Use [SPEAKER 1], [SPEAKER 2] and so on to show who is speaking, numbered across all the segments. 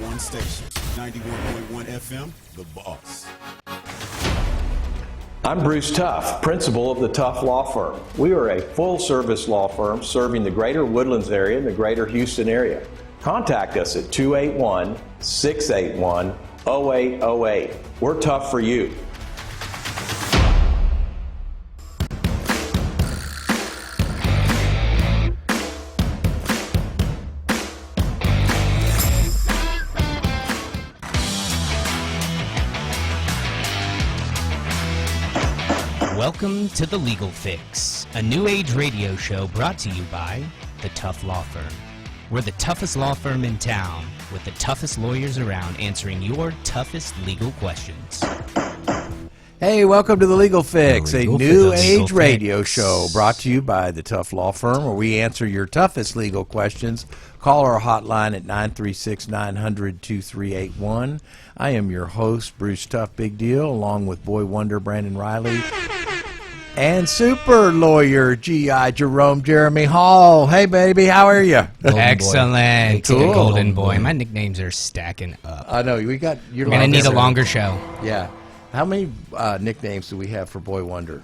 [SPEAKER 1] one station, 91.1 FM, The Boss.
[SPEAKER 2] I'm Bruce Tuff, principal of the Tuff Law Firm. We are a full service law firm serving the greater Woodlands area and the greater Houston area. Contact us at 281 681 0808. We're tough for you.
[SPEAKER 3] Welcome to The Legal Fix, a new age radio show brought to you by The Tough Law Firm. We're the toughest law firm in town with the toughest lawyers around answering your toughest legal questions.
[SPEAKER 4] Hey, welcome to the Legal Fix,
[SPEAKER 3] The Legal
[SPEAKER 4] a new
[SPEAKER 3] Fix.
[SPEAKER 4] age
[SPEAKER 3] Legal
[SPEAKER 4] radio
[SPEAKER 3] Fix.
[SPEAKER 4] show brought to you by the Tough Law Firm, where we answer your toughest legal questions. Call our hotline at 936 900 2381. I am your host, Bruce Tough Big Deal, along with Boy Wonder Brandon Riley and super lawyer G.I. Jerome Jeremy Hall. Hey, baby, how are you?
[SPEAKER 3] Excellent.
[SPEAKER 4] Cool.
[SPEAKER 3] Golden Boy. My nicknames are stacking up.
[SPEAKER 4] I know, we got your
[SPEAKER 3] We're going to need a longer show.
[SPEAKER 4] Yeah. How many uh, nicknames do we have for Boy Wonder?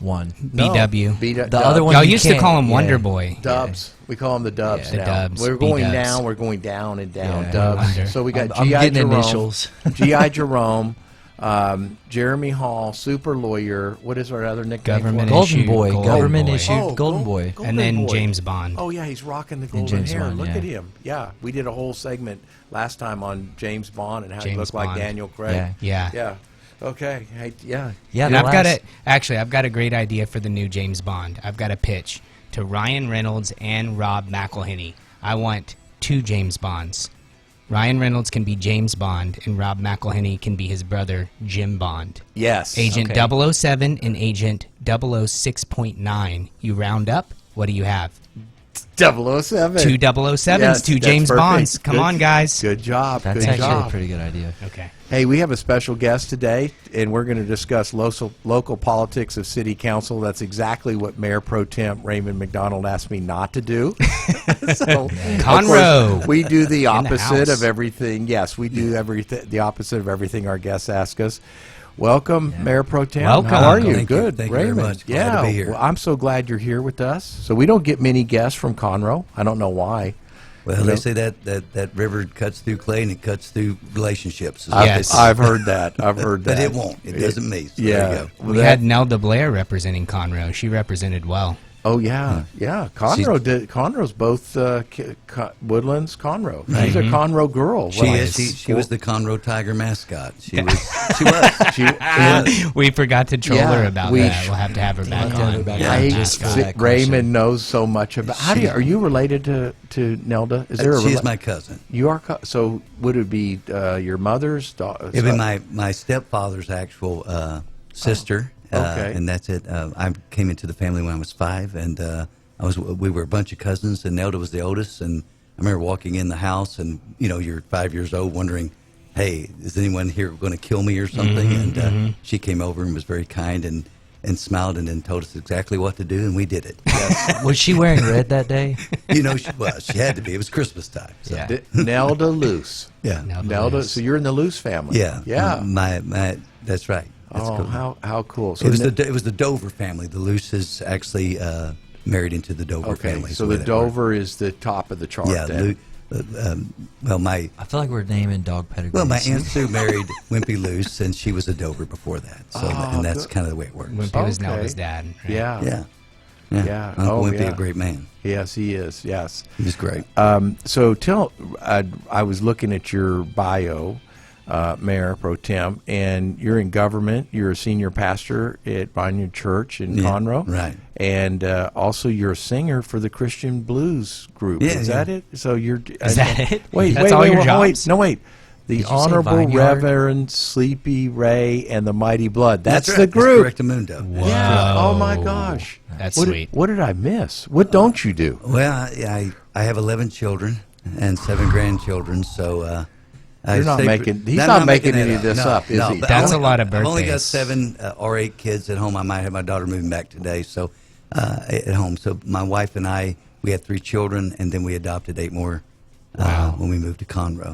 [SPEAKER 5] one.
[SPEAKER 3] BW.
[SPEAKER 4] B-
[SPEAKER 5] The other one
[SPEAKER 3] Y'all
[SPEAKER 5] you
[SPEAKER 3] used to
[SPEAKER 5] can't-
[SPEAKER 3] call him
[SPEAKER 5] yeah.
[SPEAKER 3] Wonder Boy.
[SPEAKER 4] Dubs. We call them the dubs
[SPEAKER 3] The
[SPEAKER 4] now.
[SPEAKER 3] dubs,
[SPEAKER 4] We're going
[SPEAKER 3] B-dubs.
[SPEAKER 4] down. We're going down and down.
[SPEAKER 5] Yeah,
[SPEAKER 4] dubs.
[SPEAKER 3] under.
[SPEAKER 4] So we got
[SPEAKER 5] I'm- I'm
[SPEAKER 4] GI
[SPEAKER 5] getting
[SPEAKER 4] Jerome,
[SPEAKER 5] initials.
[SPEAKER 4] GI Jerome, um, Jeremy Hall, super lawyer. What is our other nickname?
[SPEAKER 3] Government
[SPEAKER 4] for him?
[SPEAKER 5] Golden
[SPEAKER 3] Issue,
[SPEAKER 5] Boy,
[SPEAKER 3] Golden
[SPEAKER 5] government
[SPEAKER 3] Boy.
[SPEAKER 5] issued
[SPEAKER 4] Oh, Gold-
[SPEAKER 5] Golden Boy.
[SPEAKER 4] Gold-
[SPEAKER 3] And then
[SPEAKER 4] Boy.
[SPEAKER 3] James Bond.
[SPEAKER 4] Oh yeah, he's rocking the golden
[SPEAKER 5] James
[SPEAKER 4] hair.
[SPEAKER 5] Bond,
[SPEAKER 4] Look
[SPEAKER 5] yeah.
[SPEAKER 4] at him. Yeah, we did a whole segment last time on James Bond and how he
[SPEAKER 3] James
[SPEAKER 4] looked like
[SPEAKER 3] Bond.
[SPEAKER 4] Daniel Craig.
[SPEAKER 5] Yeah.
[SPEAKER 3] Yeah.
[SPEAKER 4] Yeah. Okay. Hey, yeah.
[SPEAKER 5] Yeah,
[SPEAKER 3] And
[SPEAKER 5] the
[SPEAKER 3] I've got
[SPEAKER 5] last-
[SPEAKER 3] it. Actually, I've got a great idea for the new James Bond. I've got a pitch to Ryan Reynolds and Rob McElhenney. I want two James Bonds. Ryan Reynolds can be James Bond, and Rob McElhenney can be his brother Jim Bond.
[SPEAKER 4] Yes.
[SPEAKER 3] Agent
[SPEAKER 5] Okay.
[SPEAKER 3] 007 and Agent 006.9. You round up. What do you have?
[SPEAKER 4] 007.
[SPEAKER 3] Two 007s,
[SPEAKER 4] Yes,
[SPEAKER 3] two
[SPEAKER 4] that's
[SPEAKER 3] James
[SPEAKER 4] perfect.
[SPEAKER 3] Bonds. Come
[SPEAKER 4] Good-
[SPEAKER 3] on, guys.
[SPEAKER 4] Good job.
[SPEAKER 5] That's
[SPEAKER 4] good
[SPEAKER 5] actually
[SPEAKER 4] job.
[SPEAKER 5] a pretty good idea.
[SPEAKER 3] Okay.
[SPEAKER 4] Hey, we have a special guest today, and we're going to discuss local, local politics of city council. That's exactly what Mayor Pro Temp Raymond McDonald asked me not to do. so, of
[SPEAKER 3] Conroe.
[SPEAKER 4] course, we do the opposite
[SPEAKER 3] house.
[SPEAKER 4] of everything. Yes, we do everything the opposite of everything our guests ask us. Welcome, Mayor Pro Tem.
[SPEAKER 3] Welcome.
[SPEAKER 4] How are you?
[SPEAKER 6] Thank you.
[SPEAKER 4] Good.
[SPEAKER 6] Thank you very
[SPEAKER 4] Raymond.
[SPEAKER 6] much. Glad
[SPEAKER 4] Yeah.
[SPEAKER 6] to be here.
[SPEAKER 4] Well, I'm so glad you're here with us. So we don't get many guests from Conroe. I don't know why.
[SPEAKER 6] Well,
[SPEAKER 4] You know?
[SPEAKER 6] they say that, that that river cuts through clay and it cuts through relationships. is what
[SPEAKER 4] I've,
[SPEAKER 6] they
[SPEAKER 3] Yes.
[SPEAKER 6] say.
[SPEAKER 4] I've heard that. I've heard that.
[SPEAKER 6] But it won't. It doesn't mean. So
[SPEAKER 4] yeah.
[SPEAKER 6] There you go.
[SPEAKER 3] We
[SPEAKER 4] Well,
[SPEAKER 3] had Nelda Blair representing Conroe. She represented well.
[SPEAKER 4] Oh yeah, yeah. Conroe did. Conroe's both uh, K- Co- Woodlands. Conroe. She's a Conroe girl.
[SPEAKER 6] Mm-hmm. She
[SPEAKER 4] Well,
[SPEAKER 6] is. She, she was the Conroe Tiger mascot. She was. She
[SPEAKER 4] She,
[SPEAKER 3] we forgot to troll
[SPEAKER 4] Yeah,
[SPEAKER 3] her about
[SPEAKER 4] we
[SPEAKER 3] that.
[SPEAKER 4] sh-
[SPEAKER 3] we'll have to have her back
[SPEAKER 5] have to have
[SPEAKER 3] on.
[SPEAKER 5] her back
[SPEAKER 3] Yeah,
[SPEAKER 5] on.
[SPEAKER 4] I,
[SPEAKER 3] just
[SPEAKER 5] got
[SPEAKER 4] Z-
[SPEAKER 5] that question.
[SPEAKER 4] Raymond knows so much about. How do you,
[SPEAKER 6] She-
[SPEAKER 4] are you related to to Nelda? Is there a
[SPEAKER 6] she is
[SPEAKER 4] rela-
[SPEAKER 6] my cousin.
[SPEAKER 4] You are co- so. Would it be uh, your mother's daughter?
[SPEAKER 6] It'd be my my stepfather's actual uh, sister. uh,
[SPEAKER 4] Oh, okay.
[SPEAKER 6] and that's it. Uh, I came into the family when I was five, and uh, I was we were a bunch of cousins, and Nelda was the oldest. And I remember walking in the house, and you know, you're five years old, wondering, "Hey, is anyone here going to kill me or
[SPEAKER 4] Mm-hmm,
[SPEAKER 6] something?" and uh, she came over and was very kind and and smiled, and then told us exactly what to do, and we did it.
[SPEAKER 5] Was she wearing red that day?
[SPEAKER 6] you know, she was. She had to be. It was Christmas time. So.
[SPEAKER 3] Yeah.
[SPEAKER 4] D- Nelda Luce.
[SPEAKER 6] Yeah.
[SPEAKER 3] Nelda
[SPEAKER 4] Nelda.
[SPEAKER 3] Luce.
[SPEAKER 4] So you're in the Luce family.
[SPEAKER 6] Yeah.
[SPEAKER 4] Yeah.
[SPEAKER 6] My my. That's right. That's
[SPEAKER 4] oh,
[SPEAKER 6] cool.
[SPEAKER 4] how how cool. So
[SPEAKER 6] It was
[SPEAKER 4] Ne-
[SPEAKER 6] the it was the Dover family. The Luce is actually uh, married into the Dover
[SPEAKER 4] okay.
[SPEAKER 6] family. is
[SPEAKER 4] So
[SPEAKER 6] way
[SPEAKER 4] the
[SPEAKER 6] that works.
[SPEAKER 4] Dover is the top of the chart.
[SPEAKER 6] yeah.
[SPEAKER 4] then.
[SPEAKER 6] Lu, uh, um, well, my
[SPEAKER 5] I feel like we're naming dog pedigrees.
[SPEAKER 6] well, my aunt Sue married Wimpy Luce, and she was a Dover before that. So
[SPEAKER 4] Oh,
[SPEAKER 6] and that's
[SPEAKER 4] good.
[SPEAKER 6] kind of the way it works.
[SPEAKER 3] Wimpy was
[SPEAKER 4] Okay.
[SPEAKER 3] Nelda's dad. right?
[SPEAKER 4] Yeah.
[SPEAKER 6] Yeah.
[SPEAKER 4] Yeah.
[SPEAKER 6] Uncle
[SPEAKER 4] Oh,
[SPEAKER 6] Wimpy,
[SPEAKER 4] yeah.
[SPEAKER 6] a great man.
[SPEAKER 4] Yes, he is. Yes.
[SPEAKER 6] He was great.
[SPEAKER 4] Um, so tell, I, I was looking at your bio, uh, Mayor Pro Tem, and you're in government. You're a senior pastor at Vineyard Church in
[SPEAKER 6] Yeah,
[SPEAKER 4] Conroe,
[SPEAKER 6] right.
[SPEAKER 4] And uh, also, you're a singer for the Christian Blues group.
[SPEAKER 6] Yeah,
[SPEAKER 4] is that it? So you're
[SPEAKER 3] Is that it?
[SPEAKER 4] Wait,
[SPEAKER 3] That's
[SPEAKER 4] wait,
[SPEAKER 3] all
[SPEAKER 4] wait,
[SPEAKER 3] your
[SPEAKER 4] wait, wait,
[SPEAKER 3] jobs?
[SPEAKER 4] no, wait. The
[SPEAKER 5] you say
[SPEAKER 4] Honorable
[SPEAKER 5] Vineyard?
[SPEAKER 4] Reverend Sleepy Ray and the Mighty Blood. That's,
[SPEAKER 6] right.
[SPEAKER 4] the group.
[SPEAKER 6] That's Correctamundo.
[SPEAKER 4] yeah. Oh my
[SPEAKER 3] Whoa.
[SPEAKER 4] gosh.
[SPEAKER 3] That's
[SPEAKER 4] what, did-
[SPEAKER 3] sweet.
[SPEAKER 4] What did I miss? What don't you do?
[SPEAKER 6] Well, I, I I have eleven children and seven grandchildren, so. Uh, I
[SPEAKER 4] You're not
[SPEAKER 6] stay-
[SPEAKER 4] making- he's
[SPEAKER 6] I'm
[SPEAKER 4] not making
[SPEAKER 6] that
[SPEAKER 4] any of this up, is he?
[SPEAKER 6] but
[SPEAKER 3] That's
[SPEAKER 6] I've-
[SPEAKER 3] a lot of
[SPEAKER 6] I've only got
[SPEAKER 3] birthdays.
[SPEAKER 6] seven uh, or eight kids at home. I might have my daughter moving back today, so uh, at at home. So my wife and I, we had three children, and then we adopted eight more uh, when we moved to Conroe.